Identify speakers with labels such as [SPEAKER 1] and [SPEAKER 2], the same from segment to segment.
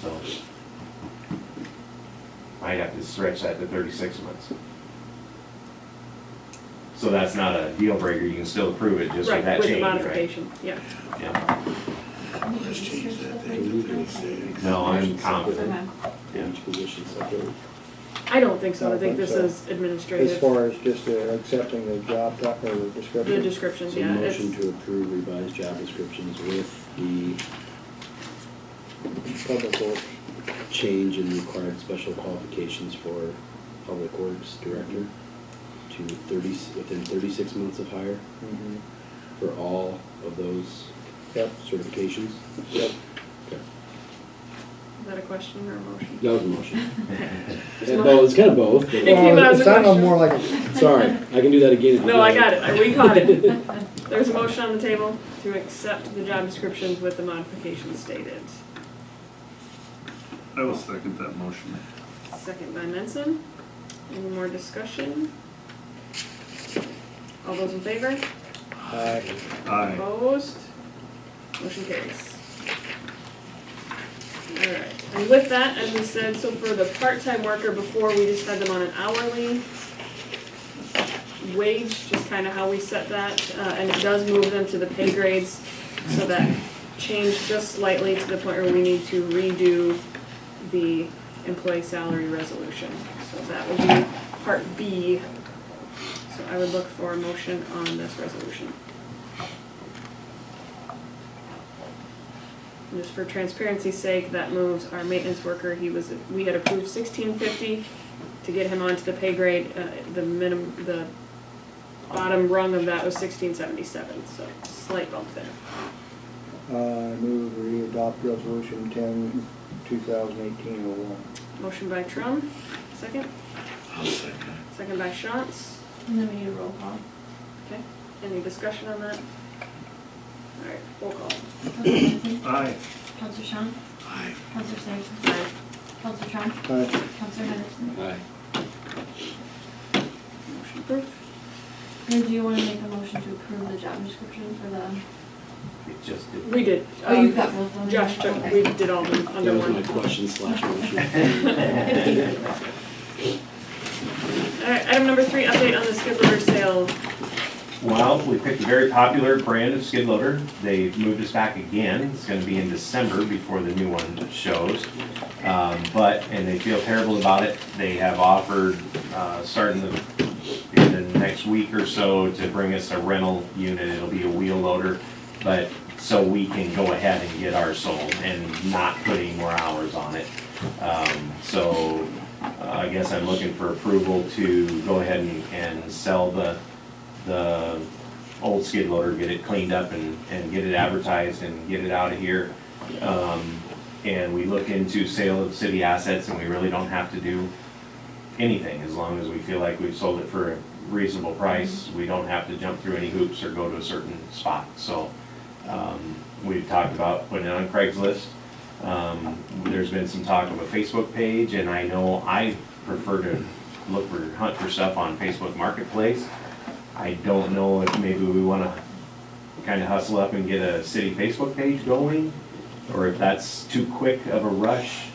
[SPEAKER 1] so. Might have to stretch that to thirty-six months. So that's not a deal breaker, you can still approve it just with that
[SPEAKER 2] Right, with the
[SPEAKER 1] change, right?
[SPEAKER 2] modification, yeah.
[SPEAKER 1] Yeah,
[SPEAKER 3] Let's change that thing to thirty-six.
[SPEAKER 1] no, I'm confident,
[SPEAKER 4] Okay.
[SPEAKER 1] yeah.
[SPEAKER 5] Each position separate.
[SPEAKER 2] I don't think so, I
[SPEAKER 6] I
[SPEAKER 2] think
[SPEAKER 6] think
[SPEAKER 2] this
[SPEAKER 6] so.
[SPEAKER 2] is
[SPEAKER 6] As
[SPEAKER 2] administrative,
[SPEAKER 6] far as just uh, accepting the job, doc- or the
[SPEAKER 2] the
[SPEAKER 6] description,
[SPEAKER 2] description,
[SPEAKER 5] So
[SPEAKER 2] yeah. it's-
[SPEAKER 5] motion to approve revised job descriptions with the
[SPEAKER 6] public works,
[SPEAKER 5] change in required special qualifications for public works director to thirty, within thirty-six months of hire
[SPEAKER 6] Mhm.
[SPEAKER 5] for all of those
[SPEAKER 6] Yep.
[SPEAKER 5] certifications.
[SPEAKER 6] Yep.
[SPEAKER 5] Okay.
[SPEAKER 2] Is that a question or a motion?
[SPEAKER 5] That was a motion.
[SPEAKER 2] It's
[SPEAKER 5] And
[SPEAKER 2] mo-
[SPEAKER 5] both, it's kind of both. but- uh,
[SPEAKER 2] It came out as a
[SPEAKER 6] It sounded
[SPEAKER 2] question.
[SPEAKER 6] more like, a-
[SPEAKER 5] Sorry, I can do that again. if you
[SPEAKER 2] No, I
[SPEAKER 5] like.
[SPEAKER 2] got it, we caught it. There's a motion on the table to accept the job descriptions with the modifications stated.
[SPEAKER 3] I will second that motion.
[SPEAKER 2] Second by Menson. Any more discussion? All those in favor?
[SPEAKER 6] uh,
[SPEAKER 3] Aye.
[SPEAKER 2] Opposed? Motion carries. Alright, and with that, as we said, so for the part-time worker, before we just had them on an hourly wage, just kinda how we set that, uh, and it does move them to the pay grades, so that changed just slightly to the point where we need to redo the employee salary resolution. So that would be part B. So I would look for a motion on this resolution. And Just for transparency's sake, that moves our maintenance worker, he was, we had approved sixteen fifty to get him onto the pay grade, uh, the minim, the bottom rung of that was sixteen seventy-seven, so slight bump there.
[SPEAKER 6] I Uh, move we adopt resolution ten, two thousand eighteen oh one.
[SPEAKER 2] Motion by Trum, second,
[SPEAKER 3] I'll second.
[SPEAKER 2] second by Shantz,
[SPEAKER 4] And then we need a roll call.
[SPEAKER 2] okay, any discussion on that? Alright, roll call.
[SPEAKER 4] Counselor Menson?
[SPEAKER 3] Aye.
[SPEAKER 4] Counselor Sean?
[SPEAKER 3] Aye.
[SPEAKER 4] Counselor Sampson? Counselor Trump?
[SPEAKER 6] Aye.
[SPEAKER 4] Counselor Henderson?
[SPEAKER 5] Aye.
[SPEAKER 2] Motion approved.
[SPEAKER 4] And do you want to make a motion to approve the job description for the?
[SPEAKER 1] It just did.
[SPEAKER 2] We did,
[SPEAKER 4] Oh, you've
[SPEAKER 2] um,
[SPEAKER 4] got both of them?
[SPEAKER 2] Josh took,
[SPEAKER 4] Okay.
[SPEAKER 2] we did all of them
[SPEAKER 5] That
[SPEAKER 2] under
[SPEAKER 5] was
[SPEAKER 2] one.
[SPEAKER 5] my question slash motion.
[SPEAKER 2] Alright, item number three, update on the skid loader sale.
[SPEAKER 1] Well, we picked a very popular brand of skid loader. They've moved us back again. It's gonna be in December before the new one shows. Um, but, and they feel terrible about it. They have offered, uh, starting the, in the next week or so to bring us a rental unit. It'll be a wheel loader. But, so we can go ahead and get ours sold and not put any more hours on it. Um, so uh, I guess I'm looking for approval to go ahead and, and sell the, the old skid loader, get it cleaned up and, and get it advertised and get it out of here. Um, and we look into sale of city assets and we really don't have to do anything as long as we feel like we've sold it for a reasonable price. We don't have to jump through any hoops or go to a certain spot, so, um, we've talked about putting it on Craigslist. Um, there's been some talk of a Facebook page and I know I prefer to look for, hunt for stuff on Facebook Marketplace. I don't know if maybe we wanna kinda hustle up and get a city Facebook page going, or if that's too quick of a rush.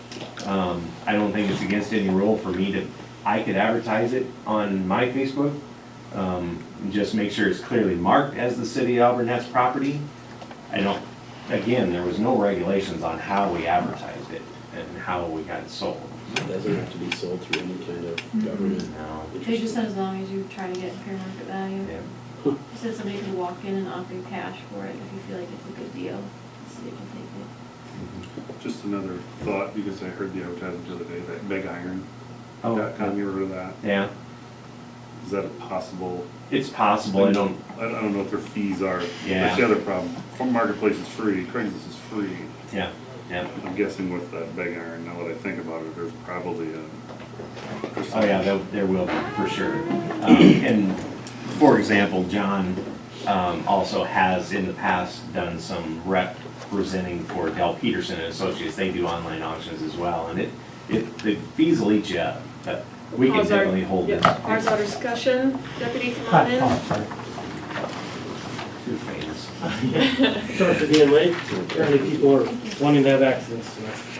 [SPEAKER 1] Um, I don't think it's against any rule for me to, I could advertise it on my Facebook. Um, just make sure it's clearly marked as the city of Auburn Heights property. I don't, again, there was no regulations on how we advertised it and how we got it sold.
[SPEAKER 5] Doesn't have to be sold through any kind of government.
[SPEAKER 1] Now,
[SPEAKER 4] They just said as long as you try to get fair market value.
[SPEAKER 1] yeah,
[SPEAKER 4] They said somebody could walk in and offer you cash for it if you feel like it's a good deal. The city can take it.
[SPEAKER 3] Just another thought, because I heard the advertisement the other day, that big iron.
[SPEAKER 1] Oh.
[SPEAKER 3] Dot com, you remember that?
[SPEAKER 1] yeah,
[SPEAKER 3] Is that a possible?
[SPEAKER 1] it's possible, I don't,
[SPEAKER 3] I don't, I don't know what their fees are.
[SPEAKER 1] Yeah.
[SPEAKER 3] That's the other problem. Marketplace is free, Craigslist is free.
[SPEAKER 1] yeah, yeah.
[SPEAKER 3] I'm guessing with that big iron, now that I think about it, there's probably a.
[SPEAKER 1] Oh, yeah, there, there will be, for sure. Um, and, for example, John, um, also has in the past done some representing for Del Peterson and Associates. They do online auctions as well, and it, it, the fees will eat you up, but we can
[SPEAKER 2] Pause our-
[SPEAKER 1] definitely hold
[SPEAKER 2] yeah,
[SPEAKER 1] this.
[SPEAKER 2] Pause our discussion. Deputy, come on in.
[SPEAKER 1] Two favors.
[SPEAKER 7] Sorry for being late, apparently people are wanting to have accidents tonight.